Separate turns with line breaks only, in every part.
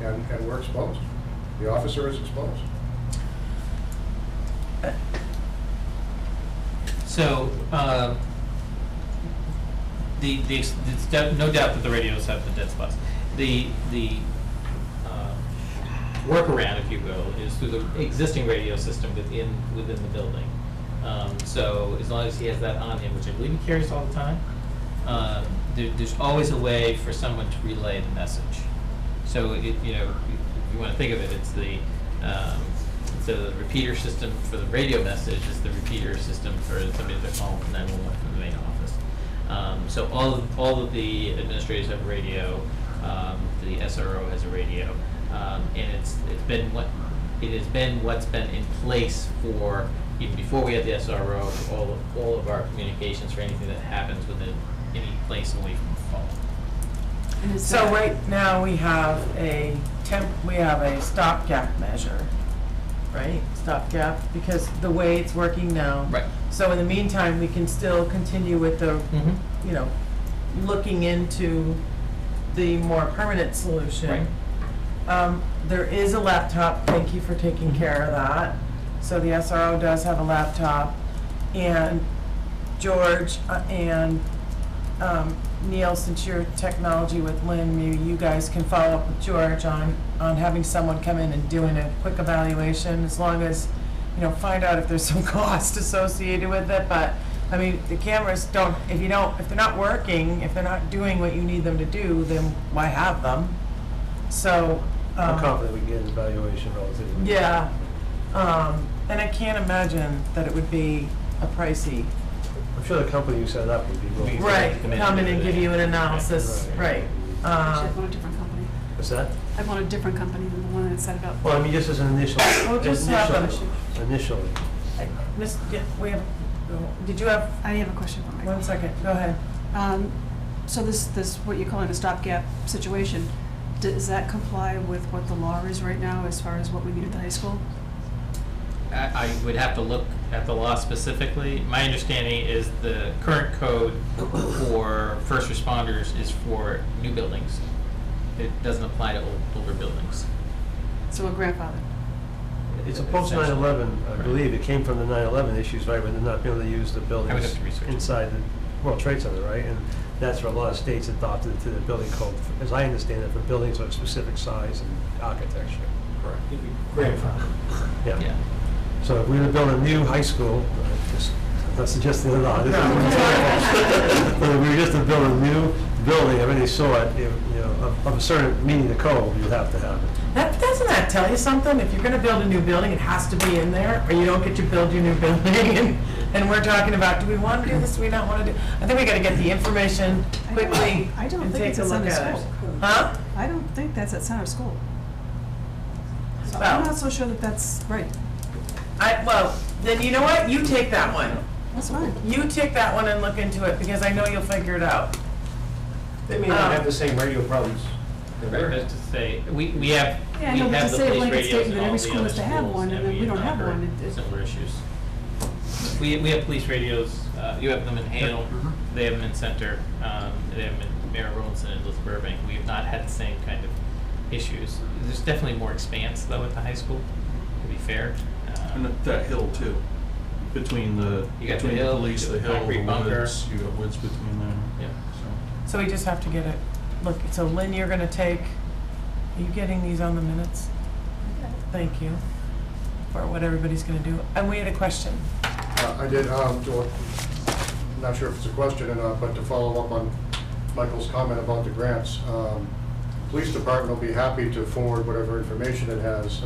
and, and we're exposed. The officer is exposed.
So, uh, the, the, it's de- no doubt that the radios have the dead spots. The, the uh, workaround, if you will, is through the existing radio system within, within the building. Um, So as long as he has that on him, which I believe he carries all the time, uh, there, there's always a way for someone to relay the message. So it, you know, if you want to think of it, it's the, um, so the repeater system for the radio message is the repeater system for somebody that calls nine one one from the main office. Um, so all of, all of the administrators have radio, um, the SRO has a radio, um, and it's, it's been what, it has been what's been in place for, even before we had the SRO, for all of, all of our communications for anything that happens within any place away from the phone.
So right now, we have a temp, we have a stopgap measure, right? Stopgap, because the way it's working now.
Right.
So in the meantime, we can still continue with the, you know, looking into the more permanent solution. Um, there is a laptop, thank you for taking care of that. So the SRO does have a laptop, and George uh, and um, Neil, since you're technology with Lynn, maybe you guys can follow up with George on, on having someone come in and doing a quick evaluation, as long as, you know, find out if there's some cost associated with it, but, I mean, the cameras don't, if you don't, if they're not working, if they're not doing what you need them to do, then why have them? So, um.
I'm confident we can get an evaluation relatively.
Yeah, um, and I can't imagine that it would be a pricey.
I'm sure the company who set it up would be willing.
Right,
Come in
come in
and
and
do
give
the-
you an analysis, right.
Right.
Actually, I
Um,
want a different company.
What's that?
I want a different company than the one that set it up.
Well, I mean, just as an initial,
Well, just have a-
initially, initially.
Miss, yeah, we have, did you have,
I have a question for
one
Michael.
second, go ahead.
Um, So this, this, what you're calling a stopgap situation, does that comply with what the law is right now as far as what we need at the high school?
I, I would have to look at the law specifically. My understanding is the current code for first responders is for new buildings. It doesn't apply to old, older buildings.
So a grandfather.
It's a post 9/11, I
Right.
believe, it came from the 9/11 issues, right, when they're not being able to use the buildings.
have to research it.
Inside the World Trade Center, right? And that's where a lot of states adopted it to the building code, as I understand it, for buildings of a specific size and architecture.
Correct.
Yeah.
So if we were to build a new high school, uh, just- I'm not suggesting it all. this is- But if we were just to build a new building of any sort, you you know, of- of a certain meaning the code, you'd have to have it.
That, doesn't that tell you something? If you're gonna build a new building, it has to be in there, or you don't get to build your new building. And, and we're talking about, do we wanna do this, do we not wanna do? I think we gotta get the information
I don't-
quickly
I don't
and
think
take
it's
a
at
look
Center
at it.
School.
Huh?
I don't think that's at center school. So
Well-
I'm not so sure that that's right.
I, well, then you know what? You take that one.
That's fine.
You take that one and look into it, because I know you'll figure it out.
They may
not have the
same radio problems.
Right, that's to say, we, we have, we
Yeah, I know, but
have the
to say it
police
like it's
radios
stated
in
that
all the
every school
other
has to have one,
schools,
and
and
then
we
we don't
have
have
not
one.
heard
It- it-
similar issues. We, we have police radios, uh, you have them in Hale, they have them in Center, um, they have them in Mayor Rollinson and Elizabeth Burbank. We have not had the same kind of issues. There's definitely more expanse though at the high school, to be fair. Um,
And that- that hill too, between the,
You got the
between the
hill,
police,
the
the hill,
concrete
the
bunker.
woods, you got woods between there.
Yeah.
So
So,
we just have to get it, look, so Lynn, you're gonna take, are you getting these on the minutes? Thank you for what everybody's gonna do. And we had a question.
Uh, I did, um, to, not sure if it's a question or not, but to follow up on Michael's comment about the grants, um, police department will be happy to forward whatever information it has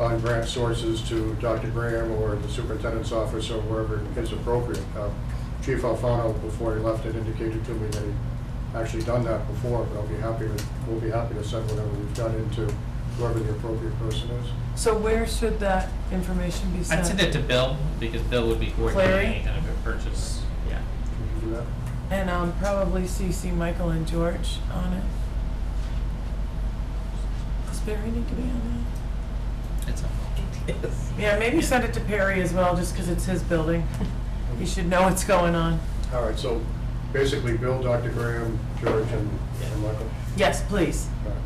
on grant sources to Dr. Graham or the superintendent's office or wherever is appropriate. Uh, Chief Alfano, before he left, had indicated to me that he'd actually done that before, but I'll be happy to, we'll be happy to send whatever we've done into whoever the appropriate person is.
So where should that information be sent?
I'd send it to Bill, because Bill would be
Clary?
coordinating any kind of a purchase, yeah.
Can you do that?
And, um, probably CC Michael and George on it. Does Barry need to be on
It's a-
that? Yeah, maybe send it to Perry as well, just 'cause it's his building. He should know what's going on.
All right, so basically Bill, Dr. Graham, George, and and Michael.
Yes, please.
All right.